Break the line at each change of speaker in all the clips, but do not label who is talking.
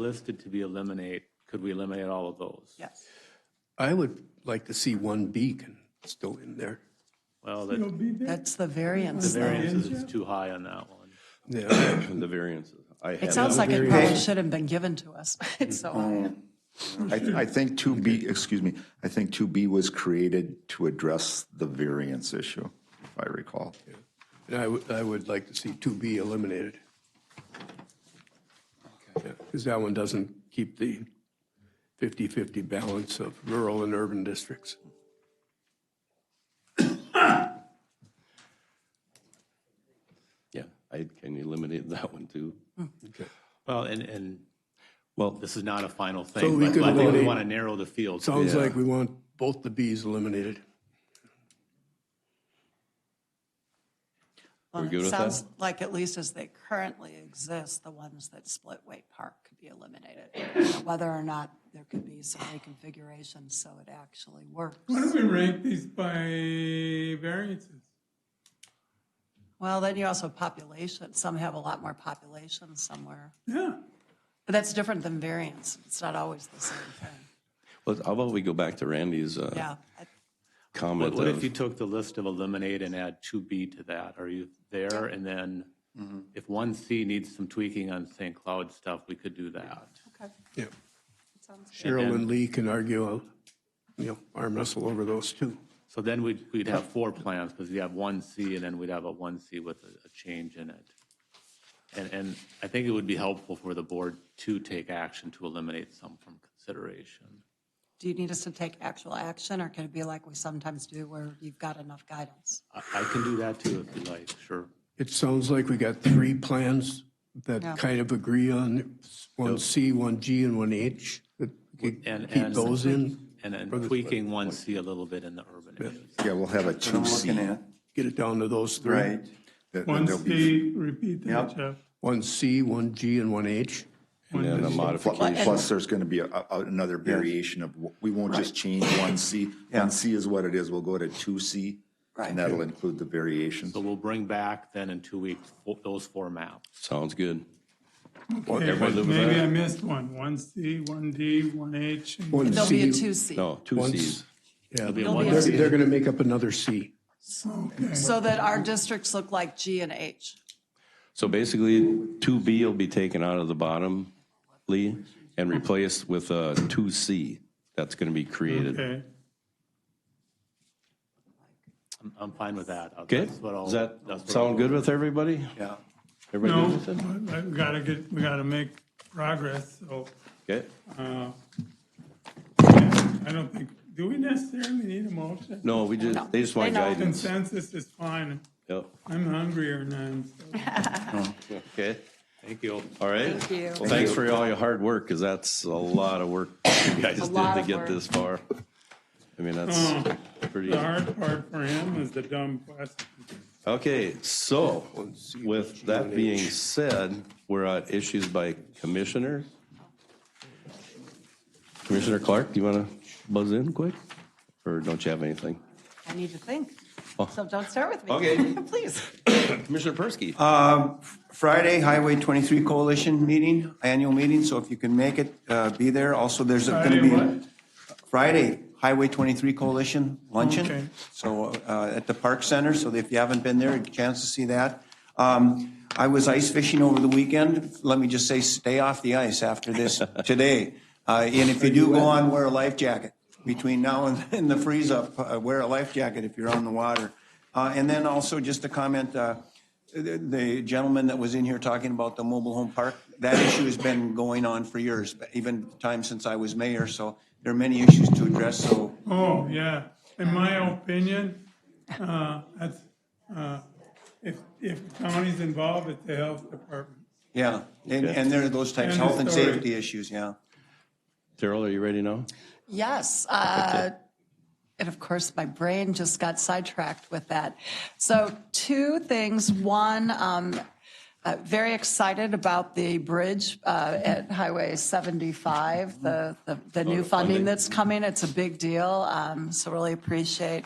listed to be eliminated, could we eliminate all of those?
Yes.
I would like to see one beacon still in there.
Well, that the
That's the variance though.
variance is too high on that one.
Yeah,
the variances. I
It
had-
sounds like it probably should have been given to us. It's so,
I, th- I think 2B, excuse me, I think 2B was created to address the variance issue, if I recall.
and I would, I would like to see two B eliminated. Because that one doesn't keep the 50-50 balance of rural and urban districts.
Yeah, I can eliminate that one too.
Well, and, and, well,
Well,
this is not a final
So
thing,
we
but
could
I think we
eliminate-
want to narrow the field.
Sounds like we want both the Bs eliminated.
We're
Well,
good
it
with that?
sounds like at least as they currently exist, the ones that split Way Park could be eliminated. Whether or not there could be some reconfiguration so it actually works.
Why don't we rank these by variances?
Well, then you also have population, some have a lot more population somewhere.
Yeah.
But that's different than variance. It's not always the same thing.
well, how about we go back to Randy's uh,
Yeah. I-
comment
What what if
of,
you took the list of eliminate and add 2B to that? Are you there? And then
Mm-hmm.
if 1C needs some tweaking on St. Cloud stuff, we could do that.
Okay,
Yeah.
that sounds good.
Cheryl and Lee can argue, you know, arm wrestle over those two.
So then we'd, we'd have four plans, because you have one C, and then we'd have a one C with a, a change in it. And, and I think it would be helpful for the board to take action to eliminate some from consideration.
Do you need us to take actual action, or can it be like we sometimes do where you've got enough guidance?
I, I can do that too, if you like, sure.
It sounds like we got three plans
Yeah.
that kind of agree on, one C, one G, and one H. that we could
And-
Keep
and-
those in,
And then tweaking one C a little bit in the urban areas.
Yeah, we'll have a 2C.
get it down to those three.
that- that
One
there'll be
C, repeat that,
Yep.
Jeff.
One C, one G, and one H.
and then a
pl-
modification?
Plus, there's going to be a- a- another variation of, w- we won't just change 1C. 1C is what it is. We'll go to 2C, and that'll include the variations.
So we'll bring back then in two weeks, fo- those four maps.
Sounds good.
Okay,
everybody
but
live with
Maybe
that?
I missed one. One C, one D, one H. and-
One
There'll be a
C,
two C.
No, two
Once-
Cs.
yeah,
Be
they're,
one
Yes.
they're gonna make up another C.
So that our districts look like G and H.
So basically, 2B will be taken out of the bottom, Lee, and replaced with a 2C that's going to be created.
Okay,
I'm, I'm fine with that.
Okay?
That's what I'll-
Does that
that's what I'll-
sound good with everybody? Yeah. Everybody
no,
good with
but we gotta get, we gotta make progress, so,
it? Okay.
uh, yeah, I don't think, do we necessarily need a motion?
No, we just, they just want
They know.
guidance.
Consensus is fine.
Yep.
I'm hungry or not, so.
Okay,
Thank you.
all right.
Thank you.
Well, thanks for all your hard work, because that's a lot of work you guys did
lot
to
of
get
work.
this far. I mean, that's
Oh,
pretty,
The hard part for him is the dumb question.
okay, so with that being said, we're at issues by commissioner. Commissioner Clark, do you want to buzz in quick, or don't you have anything?
I need to think, so don't start with me.
Okay.
Please.
Commissioner Persky?
Friday, Highway 23 Coalition meeting, annual meeting, so if you can make it, uh, be there. Also, there's going
Friday,
to be.
what?
Friday, Highway 23 Coalition
Okay.
luncheon. So uh, at the Park Center, so if you haven't been there, a chance to see that. Um, I was ice fishing over the weekend. Let me just say, stay off the ice after this today. Uh, And if you do go on, wear a life jacket. Between now and- and the freeze up, uh, wear a life jacket if you're on the water. Uh, And then also just to comment, uh, the- the gentleman that was in here talking about the mobile home park, that issue has been going on for years, but even time since I was mayor, so there are many issues to address, so
Oh, yeah. In my opinion, uh, that's, uh, if, if county's involved, it's the health department.
Yeah, and, and there are those types,
End of
health and
story.
safety issues, yeah.
Daryl, are you ready now?
Yes, uh, and of course, my brain just got sidetracked with that. So two things. One, um, uh, very excited about the bridge uh, at Highway 75, the, the the new funding that's coming. It's a big deal, um, so really appreciate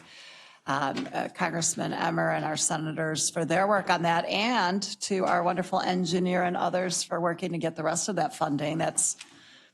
uh, um, uh, Congressman Emmer and our senators for their work on that, and to our wonderful engineer and others for working to get the rest of that funding. That's